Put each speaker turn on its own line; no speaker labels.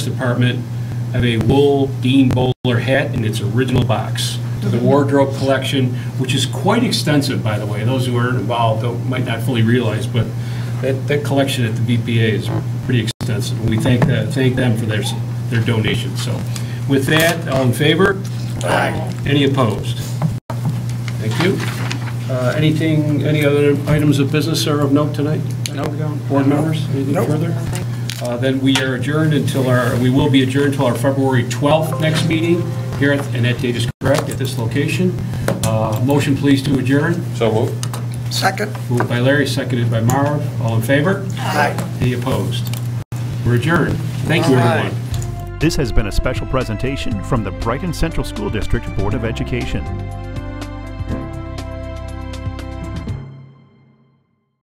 Department have a wool Dean Bowler hat in its original box. The wardrobe collection, which is quite extensive, by the way, those who aren't involved don't- might not fully realize, but that, that collection at the BPA is pretty extensive. We thank, the- thank them for their, s- their donation. So with that, all in favor? Aye. Any opposed? Thank you. Uh, Anything, any other items of business are of note tonight? No. Board members, anything further? Uh, Then we are adjourned until our, we will be adjourned until our February 12th next meeting here, at and that date is correct, at this location. Uh, Motion, please, to adjourn.
So moved.
Second?
Moved by Larry, seconded by Marv. All in favor?
Aye.
Any opposed? We're adjourned. Thank you, everyone.
This has been a special presentation from the Brighton Central School District Board of Education.